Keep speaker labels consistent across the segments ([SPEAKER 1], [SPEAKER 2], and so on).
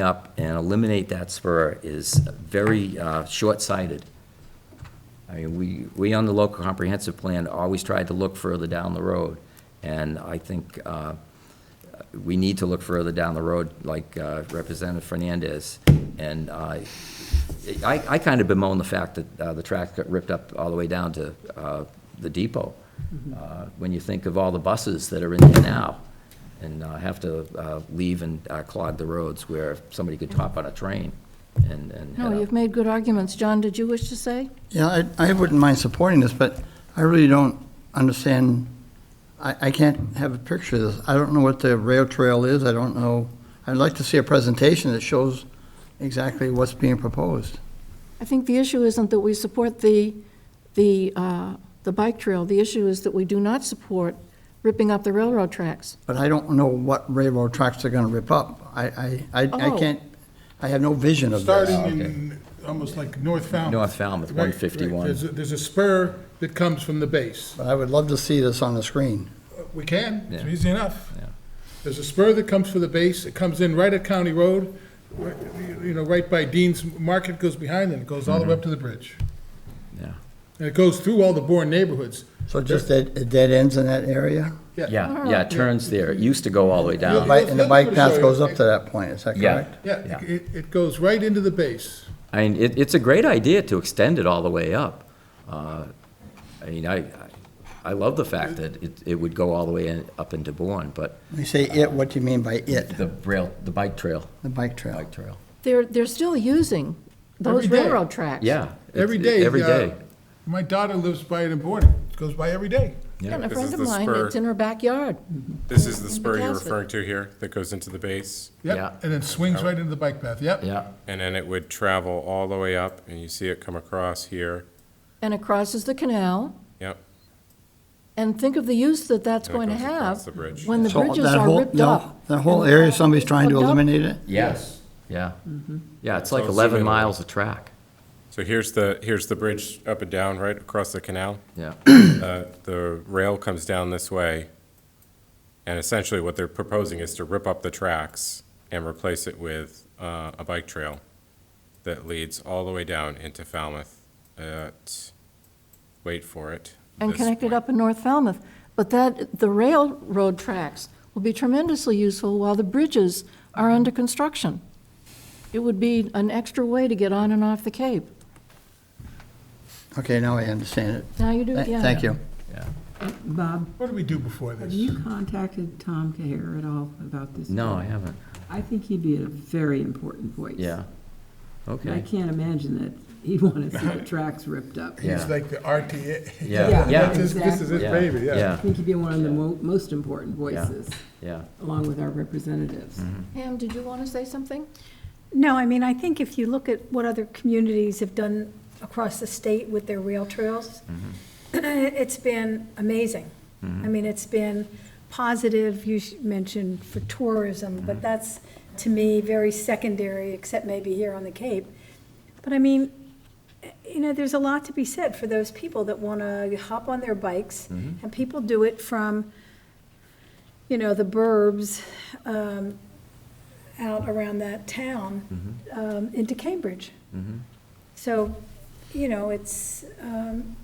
[SPEAKER 1] up and eliminate that spur is very uh, short-sighted. I mean, we, we on the local comprehensive plan always tried to look further down the road, and I think uh, we need to look further down the road, like uh, Representative Fernandez. And uh, I, I kind of bemoan the fact that uh, the track got ripped up all the way down to uh, the depot, Uh, when you think of all the buses that are in there now and uh, have to uh, leave and uh, clog the roads where somebody could hop on a train and, and head
[SPEAKER 2] No,
[SPEAKER 1] up.
[SPEAKER 2] you've made good arguments. John, did you wish to say?
[SPEAKER 3] Yeah, I, I wouldn't mind supporting this, but I really don't understand, I, I can't have a picture of this. I don't know what the rail trail is, I don't know, I'd like to see a presentation that shows exactly what's being proposed.
[SPEAKER 2] I think the issue isn't that we support the, the, uh, the bike trail. The issue is that we do not support ripping up the railroad tracks.
[SPEAKER 3] But I don't know what railroad tracks they're gonna rip up. I, I, I I
[SPEAKER 2] Oh.
[SPEAKER 3] can't, I have no vision of this.
[SPEAKER 1] Oh, okay.
[SPEAKER 4] Starting in, almost like North Falmouth.
[SPEAKER 1] North Falmouth,
[SPEAKER 4] Right, right.
[SPEAKER 1] 151.
[SPEAKER 4] There's, a- there's a spur that comes from the base.
[SPEAKER 3] But I would love to see this on the screen.
[SPEAKER 4] We can, it's
[SPEAKER 1] Yeah.
[SPEAKER 4] easy enough.
[SPEAKER 1] Yeah.
[SPEAKER 4] There's a spur that comes from the base, it comes in right at County Road, right, you know, right by Dean's Market, goes behind and it goes all the way
[SPEAKER 1] Mm-hmm.
[SPEAKER 4] up to the bridge.
[SPEAKER 1] Yeah.
[SPEAKER 4] And it goes through all the Bourne neighborhoods.
[SPEAKER 3] So just that, it dead ends in that area?
[SPEAKER 1] Yeah, yeah, it turns there. It used to go all the way
[SPEAKER 3] The
[SPEAKER 1] down.
[SPEAKER 3] bike- And the bike path goes up to that point, is that
[SPEAKER 1] Yeah.
[SPEAKER 3] correct?
[SPEAKER 4] Yeah,
[SPEAKER 1] Yeah.
[SPEAKER 4] it, it goes right into the base.
[SPEAKER 1] I mean, it, it's a great idea to extend it all the way up. Uh, I mean, I, I- I love the fact that it, it would go all the way in- up into Bourne, but
[SPEAKER 3] You say it, what do you mean by it?
[SPEAKER 1] the rail, the bike trail,
[SPEAKER 3] The bike trail?
[SPEAKER 1] bike trail.
[SPEAKER 2] They're, they're still using those
[SPEAKER 4] Every day.
[SPEAKER 2] railroad tracks.
[SPEAKER 1] Yeah. it's-
[SPEAKER 4] Every day.
[SPEAKER 1] Every
[SPEAKER 4] uh,
[SPEAKER 1] day.
[SPEAKER 4] My daughter lives by it in Bourne, it goes by every day.
[SPEAKER 1] Yeah.
[SPEAKER 2] And a
[SPEAKER 5] This
[SPEAKER 2] friend
[SPEAKER 5] is
[SPEAKER 2] of
[SPEAKER 5] the
[SPEAKER 2] mine,
[SPEAKER 5] spur.
[SPEAKER 2] it's in her backyard.
[SPEAKER 5] This is the spur you're
[SPEAKER 2] Castle.
[SPEAKER 5] referring to here that goes into the base,
[SPEAKER 1] Yeah.
[SPEAKER 4] Yep, and then swings right into the bike path, yep.
[SPEAKER 1] Yeah,
[SPEAKER 5] and then it would travel all the way up, and you see it come across here.
[SPEAKER 2] And it crosses the canal.
[SPEAKER 5] Yep.
[SPEAKER 2] And think of the use that that's
[SPEAKER 5] And it
[SPEAKER 2] going to
[SPEAKER 5] goes across
[SPEAKER 2] have
[SPEAKER 5] the bridge.
[SPEAKER 2] when the
[SPEAKER 3] So
[SPEAKER 2] bridges
[SPEAKER 3] that
[SPEAKER 2] are
[SPEAKER 3] whole-
[SPEAKER 2] ripped
[SPEAKER 3] that-
[SPEAKER 2] up.
[SPEAKER 3] That whole
[SPEAKER 2] and the
[SPEAKER 3] area,
[SPEAKER 2] tracks
[SPEAKER 3] somebody's trying to
[SPEAKER 2] ripped up.
[SPEAKER 3] eliminate it?
[SPEAKER 1] yes, yeah. Yeah, it's like
[SPEAKER 5] So it's
[SPEAKER 1] 11
[SPEAKER 5] available.
[SPEAKER 1] miles of track.
[SPEAKER 5] So here's the, here's the bridge up and down, right across the canal.
[SPEAKER 1] Yeah,
[SPEAKER 5] Uh, The rail comes down this way, and essentially what they're proposing is to rip up the tracks and replace it with uh, a bike trail that leads all the way down into Falmouth at, wait for it.
[SPEAKER 2] and
[SPEAKER 5] this
[SPEAKER 2] connect it
[SPEAKER 5] point.
[SPEAKER 2] up in North Falmouth. But that, the railroad tracks will be tremendously useful while the bridges are under construction. It would be an extra way to get on and off the Cape.
[SPEAKER 3] Okay, now I understand it.
[SPEAKER 2] Now you do,
[SPEAKER 3] Thank-
[SPEAKER 2] yeah.
[SPEAKER 3] Thank you.
[SPEAKER 1] yeah.
[SPEAKER 6] Bob,
[SPEAKER 4] What did we do before this?
[SPEAKER 6] have you contacted Tom Caher at all about this?
[SPEAKER 1] No, I haven't.
[SPEAKER 6] I think he'd be a very important voice.
[SPEAKER 1] Yeah.
[SPEAKER 6] I
[SPEAKER 1] Okay.
[SPEAKER 6] can't imagine that he'd want to see the tracks ripped up.
[SPEAKER 1] Yeah.
[SPEAKER 4] It's like the RTA.
[SPEAKER 1] Yeah,
[SPEAKER 6] Yeah.
[SPEAKER 1] yeah,
[SPEAKER 4] This is- This is his
[SPEAKER 1] Yeah.
[SPEAKER 4] baby,
[SPEAKER 6] I
[SPEAKER 4] yeah.
[SPEAKER 6] think he'd be one of the mo- most important voices,
[SPEAKER 1] yeah.
[SPEAKER 6] along with our representatives.
[SPEAKER 2] Pam, did you want to say something?
[SPEAKER 7] No, I mean, I think if you look at what other communities have done across the state with their rail trails, it's been amazing. I mean, it's been positive, you sh- mentioned for tourism, but that's, to me, very secondary, except maybe here on the Cape. But I mean, you know, there's a lot to be said for those people that want to hop on their bikes, and people do it from, you know, the burbs um, out around that town um, into Cambridge. So, you know, it's, um,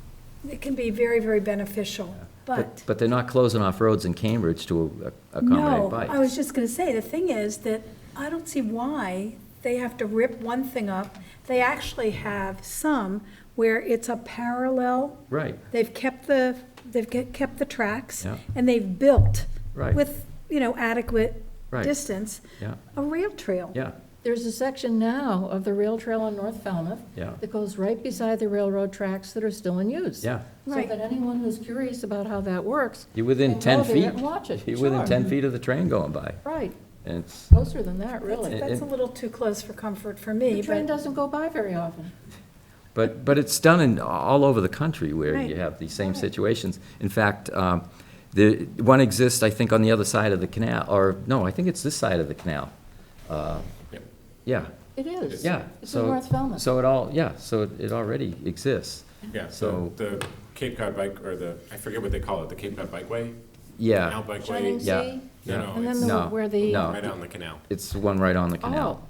[SPEAKER 7] it can be very, very beneficial, but.
[SPEAKER 1] But they're not closing off roads in Cambridge to a- accommodate bikes.
[SPEAKER 7] No, I was just going to say, the thing is that I don't see why they have to rip one thing up. They actually have some where it's a parallel.
[SPEAKER 1] Right.
[SPEAKER 7] They've kept the, they've ke- kept the tracks.
[SPEAKER 1] Yeah.
[SPEAKER 7] And they've built.
[SPEAKER 1] Right.
[SPEAKER 7] With, you know, adequate
[SPEAKER 1] Right.
[SPEAKER 7] distance.
[SPEAKER 1] Yeah.
[SPEAKER 7] A rail trail.
[SPEAKER 1] Yeah,
[SPEAKER 2] There's a section now of the rail trail on North Falmouth.
[SPEAKER 1] Yeah.
[SPEAKER 2] That goes right beside the railroad tracks that are still in use.
[SPEAKER 1] Yeah.
[SPEAKER 2] So
[SPEAKER 7] Right.
[SPEAKER 2] that anyone who's curious about how that works.
[SPEAKER 1] you're within
[SPEAKER 2] can
[SPEAKER 1] 10
[SPEAKER 2] go there
[SPEAKER 1] feet.
[SPEAKER 2] and watch it,
[SPEAKER 1] You're within
[SPEAKER 2] sure.
[SPEAKER 1] 10 feet of the train going by,
[SPEAKER 2] Right,
[SPEAKER 1] and it's,
[SPEAKER 2] closer than that, really.
[SPEAKER 7] That's that's a little too close for comfort for me,
[SPEAKER 2] The train
[SPEAKER 7] but,
[SPEAKER 2] doesn't go by very often.
[SPEAKER 1] But, but it's done in, all over the country where you
[SPEAKER 7] Right.
[SPEAKER 1] have these same situations. In fact, um, the, one exists, I think, on the other side of the canal, or, no, I think it's this side of the canal. Uh,
[SPEAKER 5] Yep.
[SPEAKER 1] Yeah,
[SPEAKER 2] It is.
[SPEAKER 1] yeah.
[SPEAKER 2] It's in
[SPEAKER 1] so-
[SPEAKER 2] North Falmouth.
[SPEAKER 1] So it all, yeah, so it it already exists.
[SPEAKER 5] Yeah,
[SPEAKER 1] So-
[SPEAKER 5] so the Cape Cod Bike, or the, I forget what they call it, the Cape Cod Bikeway?
[SPEAKER 1] Yeah.
[SPEAKER 5] Canal Bikeway?
[SPEAKER 2] Shining
[SPEAKER 1] Yeah.
[SPEAKER 2] Sea,
[SPEAKER 5] No,
[SPEAKER 1] Yeah.
[SPEAKER 5] no,
[SPEAKER 2] and then
[SPEAKER 5] it's
[SPEAKER 2] the-
[SPEAKER 1] No,
[SPEAKER 2] where the,
[SPEAKER 1] no.
[SPEAKER 5] right out in the canal.
[SPEAKER 1] It's the one right on the
[SPEAKER 2] oh,
[SPEAKER 1] canal.